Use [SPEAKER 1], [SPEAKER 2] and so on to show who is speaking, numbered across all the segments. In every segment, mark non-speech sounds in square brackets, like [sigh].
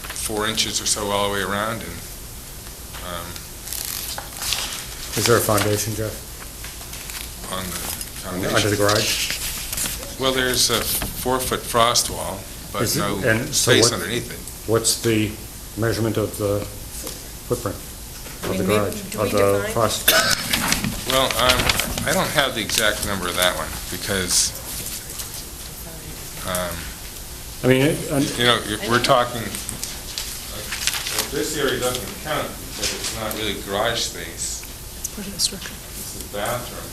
[SPEAKER 1] four inches or so all the way around, and, um,
[SPEAKER 2] Is there a foundation, Jeff,
[SPEAKER 1] on the
[SPEAKER 2] under the
[SPEAKER 1] foundation.
[SPEAKER 2] garage?
[SPEAKER 1] Well, there's a four-foot frost wall, but
[SPEAKER 2] Is it-
[SPEAKER 1] no
[SPEAKER 2] and so
[SPEAKER 1] space
[SPEAKER 2] what-
[SPEAKER 1] underneath it.
[SPEAKER 2] What's the measurement of the footprint of the
[SPEAKER 3] mean,
[SPEAKER 2] garage?
[SPEAKER 3] do we
[SPEAKER 2] of the
[SPEAKER 3] define-
[SPEAKER 2] frost-
[SPEAKER 1] Well, um, I don't have the exact number of that one, because, um,
[SPEAKER 2] I mean, it- and-
[SPEAKER 1] you know, if we're talking, like, this area doesn't count, because it's not really garage space.
[SPEAKER 3] Part of the [laughs] structure.
[SPEAKER 1] It's the bathroom,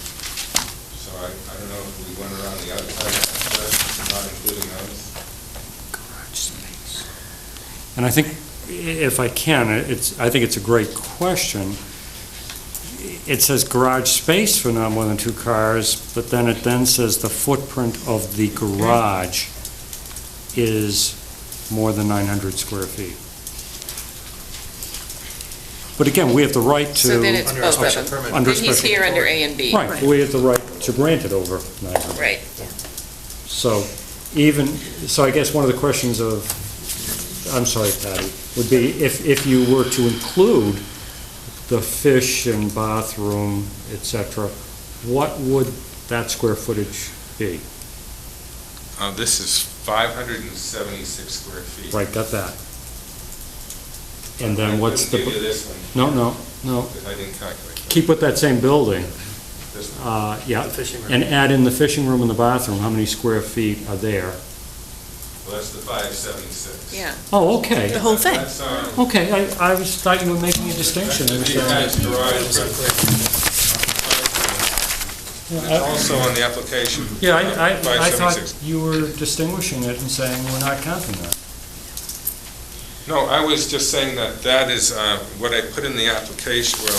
[SPEAKER 1] so I, I don't know if we went around the other side, but not including those.
[SPEAKER 2] And I think, i- if I can, it's, I think it's a great question. It says garage space for not more than two cars, but then it then says the footprint of the garage is more than 900 square feet. But again, we have the right to...
[SPEAKER 4] So then it's both
[SPEAKER 2] special
[SPEAKER 4] of them.
[SPEAKER 2] Under
[SPEAKER 4] Then He's
[SPEAKER 2] special-
[SPEAKER 4] here under A and B.
[SPEAKER 2] Right, we have the right to grant it over 900.
[SPEAKER 4] Right.
[SPEAKER 2] So even, so I guess one of the questions of, I'm sorry, Patty, would be if, if you were to include the fish and bathroom, et cetera, what would that square footage be?
[SPEAKER 1] Uh, this is five hundred and seventy-six square feet.
[SPEAKER 2] Right, got that? And then what's
[SPEAKER 1] I couldn't give you
[SPEAKER 2] the,
[SPEAKER 1] this one,
[SPEAKER 2] no, no, no,
[SPEAKER 1] because I didn't calculate. that.
[SPEAKER 2] keep with that same building,
[SPEAKER 1] This one.
[SPEAKER 2] uh, yeah.
[SPEAKER 5] fishing room.
[SPEAKER 2] And add in the fishing room and the bathroom, how many square feet are there?
[SPEAKER 1] Well, that's the five seventy-six.
[SPEAKER 4] Yeah.
[SPEAKER 2] Oh, okay,
[SPEAKER 3] The whole thing.
[SPEAKER 1] That's, um,
[SPEAKER 2] okay, I, I was thought you were making a distinction. I
[SPEAKER 1] that's
[SPEAKER 2] was
[SPEAKER 1] the
[SPEAKER 2] trying to-
[SPEAKER 1] attached garage. It's also on the application.
[SPEAKER 2] Yeah,
[SPEAKER 1] uh,
[SPEAKER 2] I, I, I
[SPEAKER 1] 576.
[SPEAKER 2] thought you were distinguishing it and saying we're not counting that.
[SPEAKER 1] No, I was just saying that that is uh, what I put in the application, well,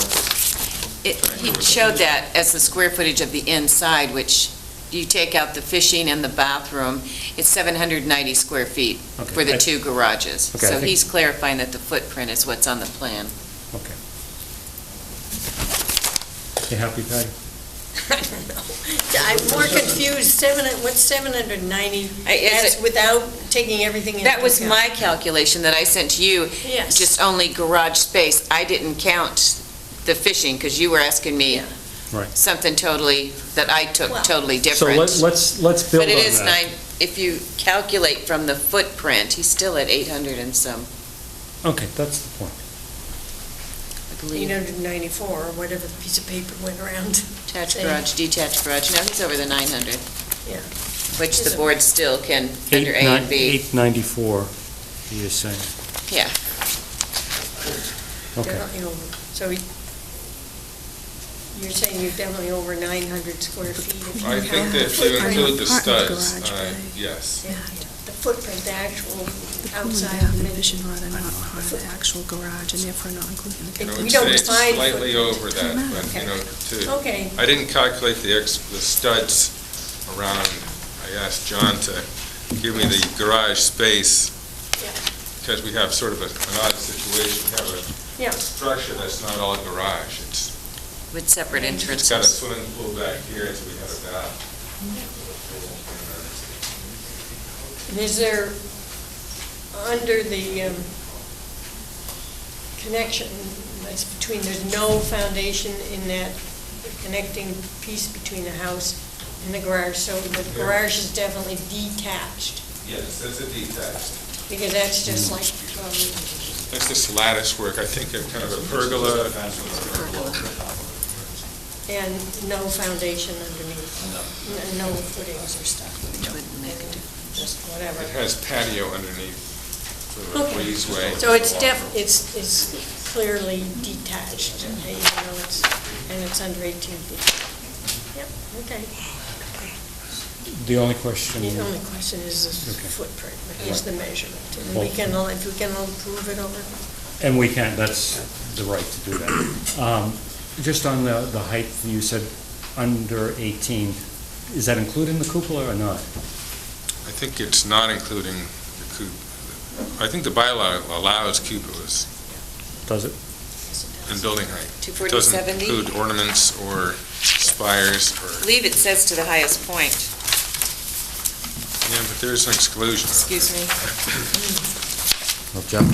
[SPEAKER 4] It- He showed that as the square footage of the inside, which you take out the fishing and the bathroom, it's 790 square feet
[SPEAKER 2] Okay,
[SPEAKER 4] for the
[SPEAKER 2] I-
[SPEAKER 4] two garages.
[SPEAKER 2] Okay, I
[SPEAKER 4] So
[SPEAKER 2] think-
[SPEAKER 4] he's clarifying that the footprint is what's on the plan.
[SPEAKER 2] You happy, Patty?
[SPEAKER 3] I'm more confused, seven, what's 790?
[SPEAKER 4] I- is
[SPEAKER 3] That's
[SPEAKER 4] it-
[SPEAKER 3] without taking everything into account.
[SPEAKER 4] That was my calculation that I sent to you,
[SPEAKER 3] Yes.
[SPEAKER 4] just only garage space. I didn't count the fishing, because you were asking me
[SPEAKER 3] Yeah.
[SPEAKER 2] Right.
[SPEAKER 4] something totally, that I took
[SPEAKER 3] Well-
[SPEAKER 4] totally
[SPEAKER 2] So
[SPEAKER 4] different.
[SPEAKER 2] let's, let's, let's build
[SPEAKER 4] But
[SPEAKER 2] on
[SPEAKER 4] it is
[SPEAKER 2] that.
[SPEAKER 4] nine, if you calculate from the footprint, he's still at 800 and some,
[SPEAKER 2] Okay, that's the point.
[SPEAKER 4] I believe.
[SPEAKER 3] 894, or whatever the piece of paper went around.
[SPEAKER 4] Attached
[SPEAKER 3] Same.
[SPEAKER 4] garage, detached garage, no, he's over the 900.
[SPEAKER 3] Yeah.
[SPEAKER 4] Which
[SPEAKER 3] Is
[SPEAKER 4] the
[SPEAKER 3] it-
[SPEAKER 4] board still can, under A
[SPEAKER 2] Eight nine-
[SPEAKER 4] and B.
[SPEAKER 2] 894, you're saying.
[SPEAKER 4] Yeah.
[SPEAKER 3] [laughs]
[SPEAKER 2] Okay.
[SPEAKER 3] Definitely over. So he- you're saying you're definitely over 900 square feet. if you
[SPEAKER 1] I think
[SPEAKER 3] count
[SPEAKER 1] that
[SPEAKER 3] the
[SPEAKER 1] if you
[SPEAKER 3] footprint.
[SPEAKER 1] include the
[SPEAKER 6] Part of the
[SPEAKER 1] studs,
[SPEAKER 6] garage,
[SPEAKER 1] uh,
[SPEAKER 6] right.
[SPEAKER 1] yes.
[SPEAKER 3] Yeah, The footprint, the actual
[SPEAKER 6] The problem
[SPEAKER 3] outside.
[SPEAKER 6] with the
[SPEAKER 3] dimension.
[SPEAKER 6] fishing rod are not part of the actual garage and therefore not included in the
[SPEAKER 1] I
[SPEAKER 3] It-
[SPEAKER 1] would
[SPEAKER 6] calculation.
[SPEAKER 3] we don't
[SPEAKER 1] say it's
[SPEAKER 3] define
[SPEAKER 1] Slightly
[SPEAKER 3] footprint.
[SPEAKER 1] over that, but, you know, to,
[SPEAKER 3] Okay,
[SPEAKER 1] I didn't calculate the ex, the studs around. I asked John to give me the garage space,
[SPEAKER 3] Yeah.
[SPEAKER 1] because we have sort of a- an odd situation. We have
[SPEAKER 3] yeah.
[SPEAKER 1] a structure that's not all garage. It's
[SPEAKER 4] With separate
[SPEAKER 1] it's got a
[SPEAKER 4] entrances.
[SPEAKER 1] swimming pool back here, so we have a bath.
[SPEAKER 3] And Is there, under the um, connection, that's between, there's no foundation in that connecting piece between the house and the garage, so the garage is definitely detached,
[SPEAKER 1] Yes, that's a detached.
[SPEAKER 3] because that's just like, um,
[SPEAKER 1] That's this lattice work, I think, of kind of a pergola.
[SPEAKER 3] and no foundation underneath, n- no footings or stuff.
[SPEAKER 4] Which wouldn't make a difference.
[SPEAKER 3] Just
[SPEAKER 1] It
[SPEAKER 3] whatever.
[SPEAKER 1] has patio underneath for a
[SPEAKER 3] Okay.
[SPEAKER 1] breezeway.
[SPEAKER 3] So it's def, it's, it's clearly detached, even though it's, and it's under 18 feet. Yep, okay.
[SPEAKER 2] The only question,
[SPEAKER 3] The only question is the
[SPEAKER 2] Okay.
[SPEAKER 3] footprint, is the measurement. And we
[SPEAKER 2] Well-
[SPEAKER 3] can, all- if we can all prove it over,
[SPEAKER 2] and we can, that's the right to do that. Um, Just on the, the height, you said under 18, is that including the cupola or not?
[SPEAKER 1] I think it's not including the coop. I think the bylaw allows cupolas
[SPEAKER 2] Does it?
[SPEAKER 1] in building height. It
[SPEAKER 4] 240,
[SPEAKER 1] doesn't include ornaments or spires or,
[SPEAKER 4] Leave it says to the highest point.
[SPEAKER 1] yeah, but there's an exclusion.
[SPEAKER 4] Excuse me.
[SPEAKER 7] Well, Jeff